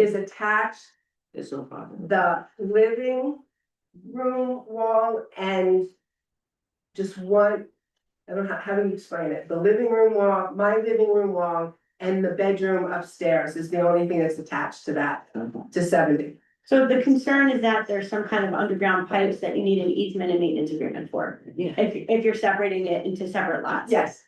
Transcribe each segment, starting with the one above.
is attached There's no problem. the living room wall and just one, I don't know, how do you explain it? The living room wall, my living room wall and the bedroom upstairs is the only thing that's attached to that, to seventy. So the concern is that there's some kind of underground pipes that you need an easement and maintenance agreement for, Yeah. if, if you're separating it into separate lots. Yes,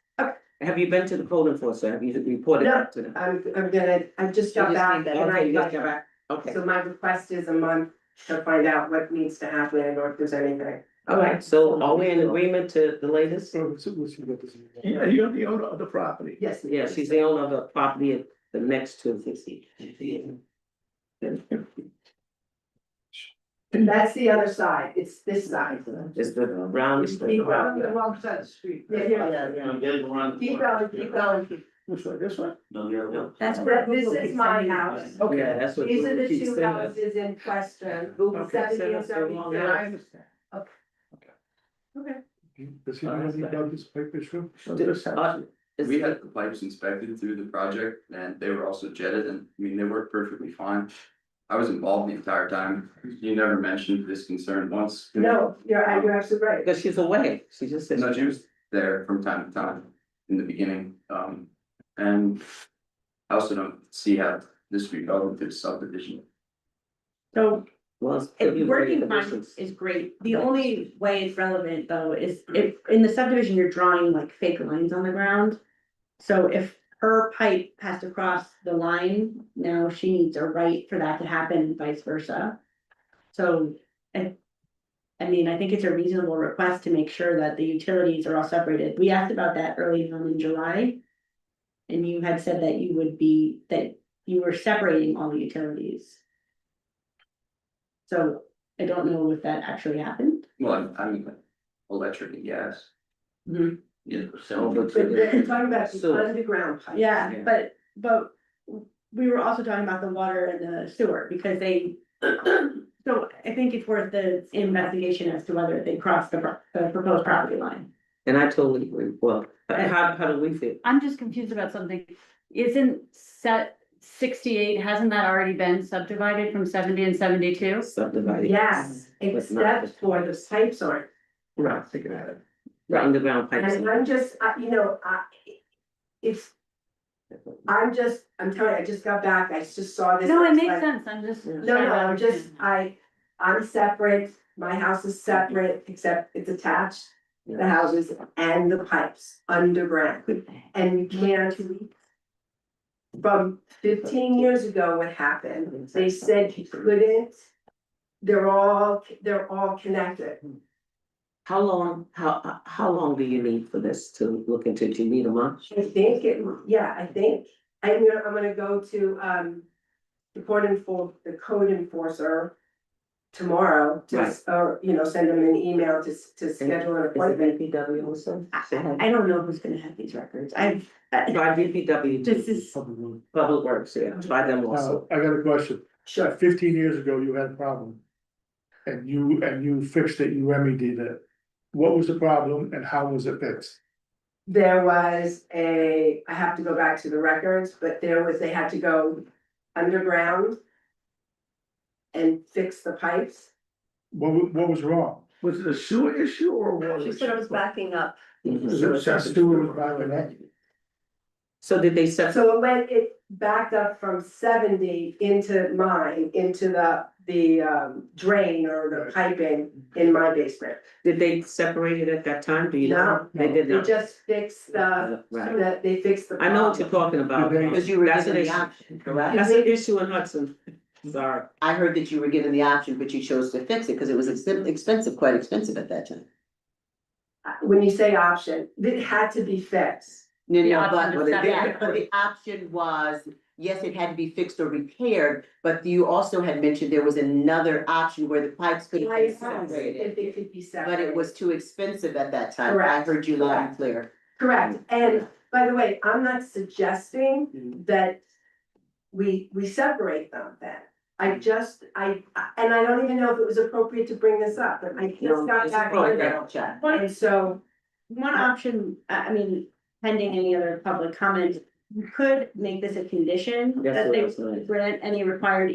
Have you been to the code enforcer? Have you reported No. that to them? I'm, I'm gonna, I just got You just back need that. and Okay, I you just got got back. back. Okay, So my request is a month to find out what needs to happen and or if there's anything. all right, so are we in agreement to the latest? So, so we should get this. Yeah, you're the owner of the property. Yes. Yeah, she's the owner of the property at the next two fifty. That's the other side. It's this side. Is the brown. is Keep the- going, wrong side of the street. Yeah, yeah. keep going, keep going. Which way, this way? No, the other one. That's But where. this is my house. Yeah, that's what. These are the she two said. houses in question, Okay, so seventy and that's the wrong Yeah, I seventy-two. understand. Does he know anything about this paper shoe? So this Uh, house, Is- We had the pipes inspected through the project and they were also jetted and, I mean, they worked perfectly fine. I was involved the entire time. You never mentioned this concern once. No, you're, uh, you're absolutely right. Because she's away, she just said. No, she was there from time to time in the beginning, um, and I also don't see how this would be relevant to the subdivision. So Was. it- working fine is great. The only way it's relevant though is if, in the subdivision, you're drawing like fake lines on the ground. So if her pipe has to cross the line, now she needs a right for that to happen and vice versa. So, I, I mean, I think it's a reasonable request to make sure that the utilities are all separated. We asked about that early on in July. And you had said that you would be, that you were separating all the utilities. So I don't know if that actually happened. Well, I I mean, electric and gas. Yeah. So, but- But the- I'm talking about the So- underground pipe. Yeah, Yeah. but, but we were also talking about the water and the sewer because they. So I think it's worth the investigation as to whether they crossed the, pro- the proposed property line. And I totally agree, well, how, how do we feel? I'm just confused about something. Isn't set sixty-eight, hasn't that already been subdivided from seventy and seventy-two? Subdivided. Yes, Mm. except for the pipes aren't. Right, thinking about it. the underground pipes. And I'm just, I, you know, I, it's, I'm just, I'm telling you, I just got back, I just saw this. No, it like- makes sense, I'm just. No, no, I'm just, I, I'm separate, my house is separate, except it's attached, the houses and the pipes underground. And you can't from fifteen years ago, what happened, they said you couldn't. They're all, they're all connected. How long, how, uh, how long do you need for this to look into, do you need a month? I think it, yeah, I think, I'm gonna, I'm gonna go to, um. The court enfor, the code enforcer. Tomorrow, to, Right. or, you know, send them an email to, s- to schedule an Is it appointment. BPW also? I, I- I don't know who's gonna have these records. I've, I- By BPW. This is- Uh, Public Works, yeah, by them Now, also. I got a question. Sure. Fifteen years ago, you had a problem. And you, and you fixed it, you remedied it. What was the problem and how was it fixed? There was a, I have to go back to the records, but there was, they had to go underground. And fix the pipes. What, wa- what was wrong? Was it a sewer issue or a water? she said it was backing up. Mhm. Is it just doing by the neck? So did they set, So it went, it backed up from seventy into mine, into the, the um drain or the piping in my basement. did they separate it at that time, do you know? No. They did They not. just uh, fixed the, Right, that they fixed the. I know what you're talking about, Did they- because you were that's an issue, Correct. that's an issue in Hudson, sorry. I heard that you were given the option, but you chose to fix it because it was Mm-hmm. expen- expensive, quite expensive at that time. When you say option, it had to be fixed. No, The no, option but, to but the- separate. but the option was, yes, it had to be fixed or repaired, but you also had mentioned there was another option where the pipes could Why be is that? separated. If it could be separated. But it was too expensive at that time. I Correct. heard you loud and clear. Correct, Mm-hmm. and by the way, I'm not suggesting that we, we separate them then. Mm-hmm. I just, I, I- and I don't even know if it was appropriate to bring this up, but I just No, got it's back appropriate. on that. I'll check. And so, One option, I, I mean, pending any other public comment, you could make this a condition That's that what I they was gonna- grant any required